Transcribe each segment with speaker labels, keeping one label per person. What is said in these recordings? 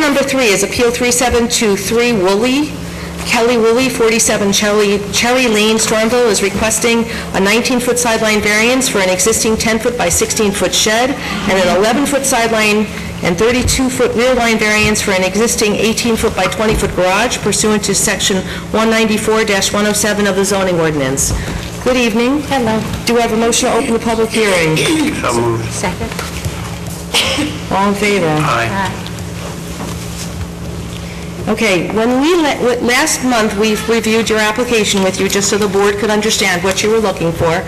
Speaker 1: number three is Appeal 3723 Woolley. Kelly Woolley, 47 Cherry Cherry Lane, Stormville, is requesting a 19-foot sideline variance for an existing 10-foot by 16-foot shed and an 11-foot sideline and 32-foot rear line variance for an existing 18-foot by 20-foot garage pursuant to Section 194-107 of the zoning ordinance. Good evening. Hello. Do I have a motion to open the public hearing?
Speaker 2: So moved.
Speaker 3: Second?
Speaker 1: All in favor?
Speaker 2: Aye.
Speaker 1: Okay, when we, la- w- last month, we reviewed your application with you, just so the board could understand what you were looking for.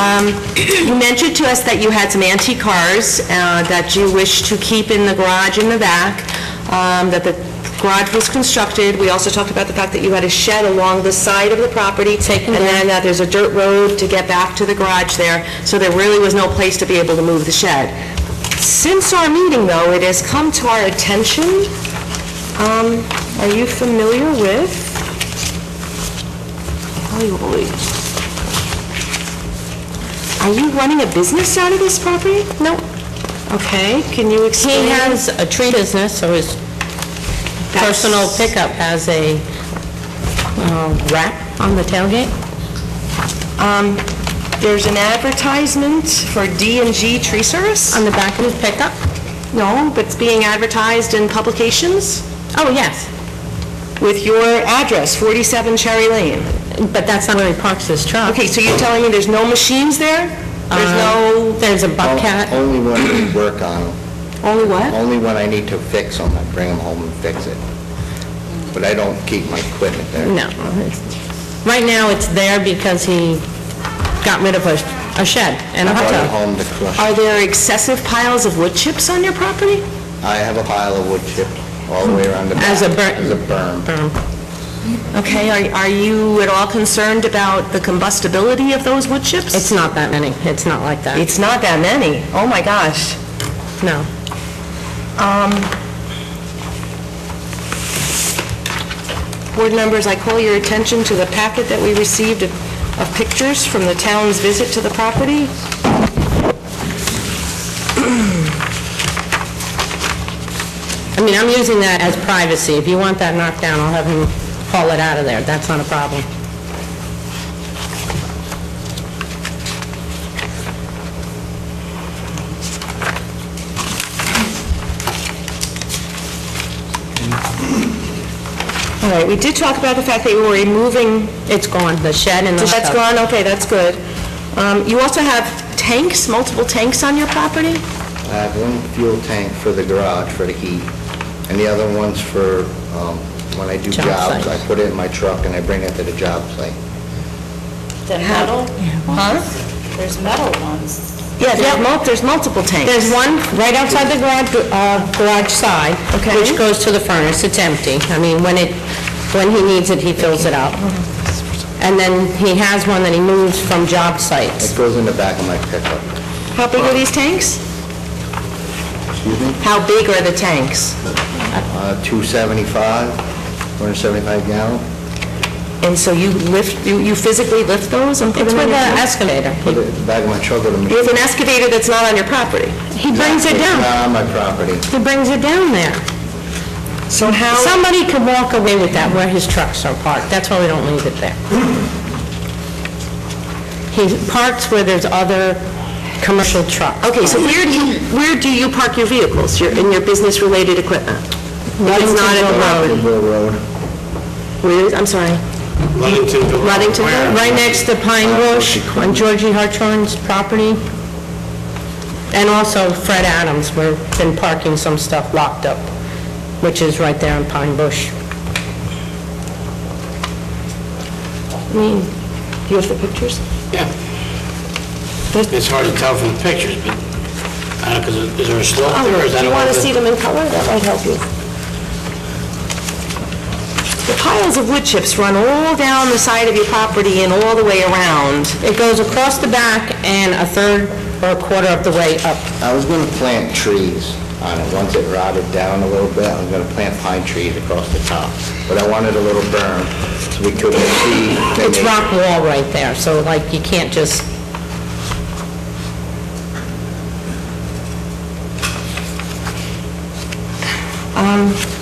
Speaker 1: Um, You mentioned to us that you had some antique cars uh, that you wished to keep in the garage in the back, um, that the garage was constructed. We also talked about the fact that you had a shed along the side of the property. And then that there's a dirt road to get back to the garage there, so there really was no place to be able to move the shed. Since our meeting, though, it has come to our attention um, are you familiar with Kelly Woolley? Are you running a business out of this property? No. Okay, can you explain?
Speaker 4: He has a tree business, so his
Speaker 1: That's-
Speaker 4: personal pickup has a um, wrap on the tailgate.
Speaker 1: Oh, Um, there's an advertisement for d and G Tree Service?
Speaker 4: On the back of his pickup?
Speaker 1: No, but it's being advertised in publications
Speaker 4: Oh, yes,
Speaker 1: with your address, 47 Cherry Lane.
Speaker 4: but that's not where he parks his truck.
Speaker 1: Okay, so you're telling me there's no machines there? There's
Speaker 4: Um,
Speaker 1: no,
Speaker 4: There's a buckcat.
Speaker 5: Only when we work on them,
Speaker 1: only what?
Speaker 5: only when I need to fix them, I bring them home and fix it. But I don't keep my equipment there.
Speaker 4: No. Right now, it's there because he got rid of a a shed and
Speaker 5: I
Speaker 4: a hot
Speaker 5: brought it
Speaker 4: tub.
Speaker 5: home to crush.
Speaker 1: Are there excessive piles of wood chips on your property?
Speaker 5: I have a pile of wood chip all the way around the back.
Speaker 4: As a bur-
Speaker 5: As a berm.
Speaker 4: Um,
Speaker 1: Okay, are are you at all concerned about the combustibility of those wood chips?
Speaker 4: It's not that many, it's not like that,
Speaker 1: It's not that many. Oh, my gosh. Um,
Speaker 4: no.
Speaker 1: Board members, I call your attention to the packet that we received of of pictures from the town's visit to the property.
Speaker 4: I mean, I'm using that as privacy. If you want that knocked down, I'll have him haul it out of there, that's not a problem.
Speaker 1: All right, we did talk about the fact that you were removing...
Speaker 4: It's gone, the shed and the hot
Speaker 1: That's
Speaker 4: tub.
Speaker 1: gone, okay, that's good. Um, You also have tanks, multiple tanks on your property?
Speaker 5: I have one fuel tank for the garage for the heat, and the other one's for, um, when I do
Speaker 4: Job
Speaker 5: jobs, I
Speaker 4: site.
Speaker 5: put it in my truck and I bring it to the job site.
Speaker 3: The metal ones? There's metal ones.
Speaker 1: Yeah, there- mul- there's multiple tanks.
Speaker 4: There's one right outside the garage, uh, garage side,
Speaker 1: Okay.
Speaker 4: which goes to the furnace, it's empty. I mean, when it, when he needs it, he fills it up. And then he has one that he moves from job sites.
Speaker 5: It goes in the back of my pickup.
Speaker 1: How big are these tanks?
Speaker 5: Excuse me?
Speaker 1: How big are the tanks?
Speaker 5: Uh, 275, 175 gallon.
Speaker 1: And so you lift, you you physically lift those and put
Speaker 4: It's
Speaker 1: them in
Speaker 4: with
Speaker 1: your...
Speaker 4: an
Speaker 1: truck?
Speaker 4: excavator.
Speaker 5: Put it in the back of my truck with a machine.
Speaker 1: With an excavator that's not on your property.
Speaker 4: He brings it
Speaker 5: It's
Speaker 4: down,
Speaker 5: not on my property.
Speaker 4: he brings it down there.
Speaker 1: So how,
Speaker 4: Somebody could walk away with that where his trucks are parked, that's why we don't leave it there. He parks where there's other commercial trucks.
Speaker 1: okay, so where do you, where do you park your vehicles, your, in your business-related equipment? If it's not at the property?
Speaker 5: Kimbrell Road.
Speaker 1: Where is- I'm sorry,
Speaker 2: Ludingtonville.
Speaker 1: Ludingtonville?
Speaker 4: Right next to Pine Bush, on Georgie Hartshorn's property, and also Fred Adams, we've been parking some stuff locked up, which is right there on Pine Bush.
Speaker 1: Do you have the pictures?
Speaker 2: Yeah. It's hard to tell from the pictures, but, I don't know, 'cause is there a slope there, or is that
Speaker 1: Oh, Do
Speaker 2: a...
Speaker 1: you want to see them in color? That might help you. The piles of wood chips run all down the side of your property and all the way around.
Speaker 4: It goes across the back and a third or a quarter of the way up.
Speaker 5: I was going to plant trees on it. Once it rotted down a little bit, I was going to plant pine trees across the top. But I wanted a little berm so we couldn't see. the
Speaker 4: It's
Speaker 5: nature.
Speaker 4: rock wall right there, so like, you can't just,
Speaker 1: Um,